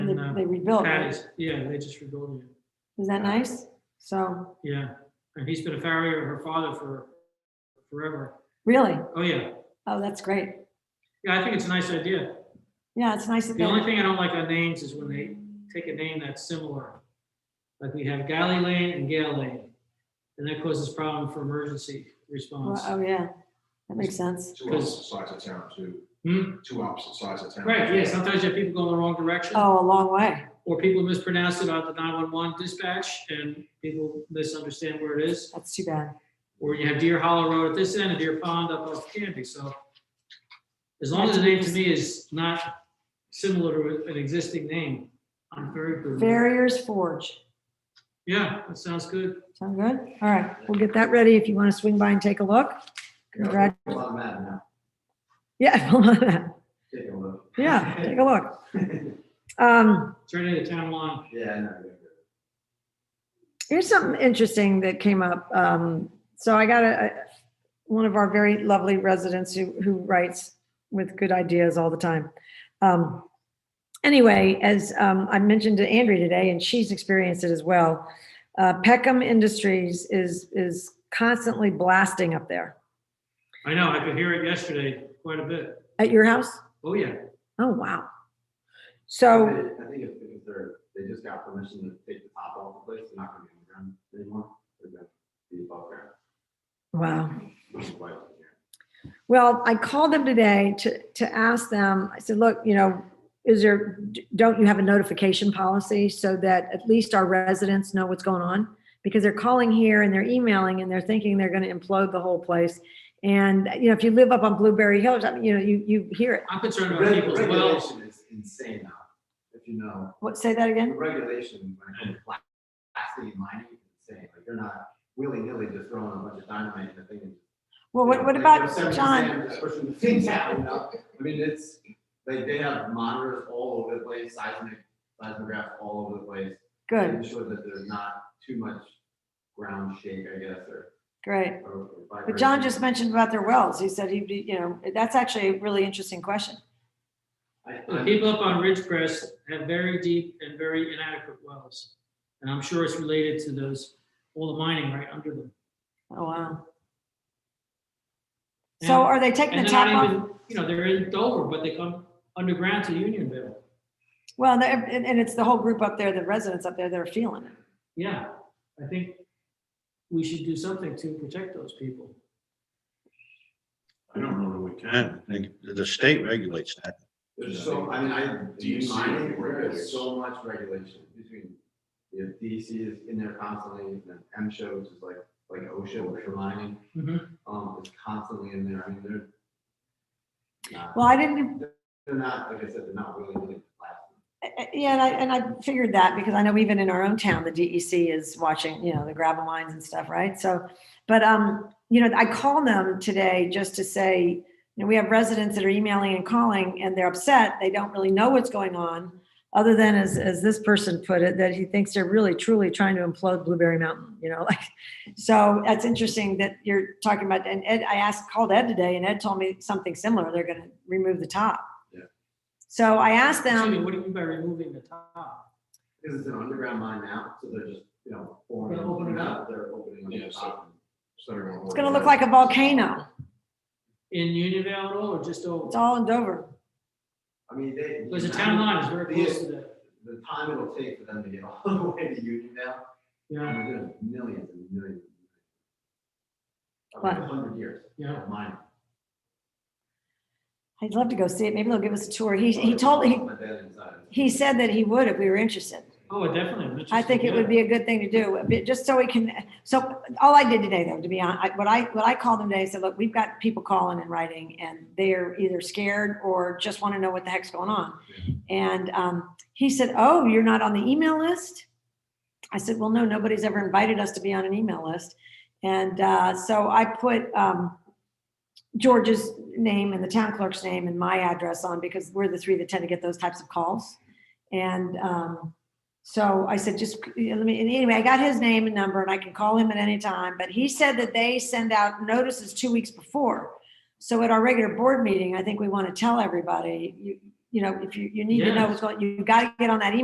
yeah. They rebuilt Pat it. is- Yeah, they just rebuilt it, Is that nice? So, yeah. And he's been a farrier, her father for forever. really? Oh, yeah. Oh, that's great. Yeah, I think it's a nice idea. Yeah, it's nice that The only they, thing I don't like on names is when they take a name that's similar. Like we have Galley Lane and Gale Lane. And that causes problem for emergency response. well, oh, yeah, that makes sense. Two opposite sides of town, too. Hmm? Two opposite sides of town. Right, yeah, sometimes you have people go in the wrong direction. Oh, a long way. Or people mispronounce it on the 911 dispatch and people misunderstand where it is. That's too bad. Or you have Deer Hollow Road at this end and Deer Pond up off Canby, so. As long as the name to me is not similar to an existing name, I'm very. good with it. Farriers Forge. Yeah, that sounds good. Sound good? All right, we'll get that ready if you want to swing by and take a look. Congrat, A lot of that now. yeah, Take a look. yeah, take a look. Um, Turn it into town line. Yeah, I know. Here's something interesting that came up. Um, so I got a, a- one of our very lovely residents who, who writes with good ideas all the time. Um, anyway, as um, I mentioned to Andrea today, and she's experienced it as well, uh, Peckham Industries is is constantly blasting up there I know, I could hear it yesterday quite a bit. at your house. Oh, yeah. Oh wow! So I think if, if they're, they just got permission to take the top off the place, they're not gonna be underground anymore. They're gonna be above wow. ground. Well, I called them today to, to ask them, I said, look, you know, is there, don't you have a notification policy so that at least our residents know what's going on? Because they're calling here and they're emailing and they're thinking they're gonna implode the whole place. And, you know, if you live up on Blueberry Hills, I mean, you know, you, you hear it. I'm concerned about people's wells. Regulation is insane now, if you know. What, say that The again? regulation, when it comes to pla- plastic and mining, is insane. Like, they're not willy-nilly just throwing a bunch of dynamite in the thing. and- Well, what, what Like, about there's seventy John? standards Pushing the things out, you know? I mean, it's, like, they have monitors all over the place, seismic, seismographs all over the place. Good, Making sure that there's not too much ground shake, I guess, or. great. or But John vibration. just mentioned about their wells. He said he'd be, you know, that's actually a really interesting question. I- The I'm- Uh, people up on Ridgecrest have very deep and very inadequate wells. And I'm sure it's related to those, all the mining right under them. Oh, wow. So And- are they taking And the they're top off? not even, you know, they're in Dover, but they come underground to Unionville. Well, and- and, and it's the whole group up there, the residents up there that are feeling it. Yeah, I think we should do something to protect those people. I don't know that we can. I think the state regulates that. There's so, I mean, I, do you DC mind, regulates. there's so much regulation between, you know, DC is in there constantly, and then M show, which is like, like OSHA, which for mining, Mhm. um, is constantly in there, I mean, they're. not- Well, I didn't, They're not, like I said, they're not really, really. eh, yeah, and I, and I figured that because I know even in our own town, the DEC is watching, you know, the gravel mines and stuff, right? So, but, um, you know, I called them today just to say, you know, we have residents that are emailing and calling and they're upset. They don't really know what's going on. Other than as, as this person put it, that he thinks they're really truly trying to implode Blueberry Mountain, you know, like, so that's interesting that you're talking about, and Ed, I asked, called Ed today and Ed told me something similar. They're gonna remove the top. Yeah. So I asked Excuse me, them, what do you mean by removing the top? Because it's an underground mine now, so they're just, you know, forming. They're opening up. They're opening up. Yeah, the so- top. it's gonna look like a volcano. In Unionville at all, or just It's over? all in Dover. I mean, they. Because the town line is very close to that. The time it'll take for them to get all the way to Union now, I Yeah, mean, there's millions and millions. What? A hundred years. Yeah. of Mine. I'd love to go see it. Maybe they'll give us a tour. He, he told, he, My dad inside. he said that he would if we were interested. oh, definitely. I'm I interested, think it would yeah. be a good thing to do, a bit- just so we can, so all I did today though, to be honest, what I, what I called them today, I said, look, we've got people calling and writing and they're either scared or just want to know what the heck's going on. And um, he said, oh, you're not on the email list? I said, well, no, nobody's ever invited us to be on an email list. And uh, so I put um, George's name and the town clerk's name and my address on because we're the three that tend to get those types of calls. And um, so I said, just, you know, let me, and anyway, I got his name and number and I can call him at any time, but he said that they send out notices two weeks before. So at our regular board meeting, I think we want to tell everybody, you, you know, if you, you need to know what's going, you got to get on that email